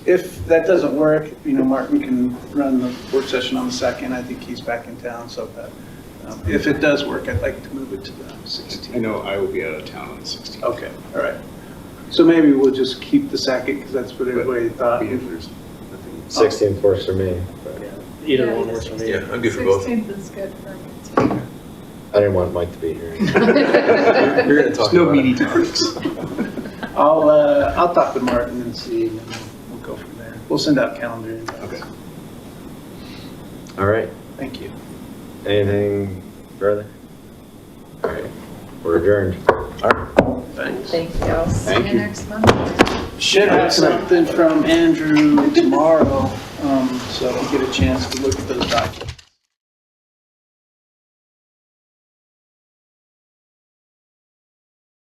if that doesn't work, you know, Martin can run the work session on the second. I think he's back in town, so that, um, if it does work, I'd like to move it to the I 16th. know I will be out of town on the 16th. Okay, all right. So maybe we'll just keep the second because that's what But everybody thought. If there's Oh. nothing. 16th works for me, but Either one works for me. Yeah, I'm good for both. 16th is good for me I didn't want Mike to be here. too. You're gonna talk There's no about it. meaty talks. I'll, uh, I'll talk with Martin and see, and we'll- we'll go from there. We'll send out calendar Okay. invites. All right, Thank you. anything further? All right, we're adjourned. Thanks. Thank you. See Thank you you. next month. Should have something from Andrew tomorrow, um, so I'll get a chance to look at those documents.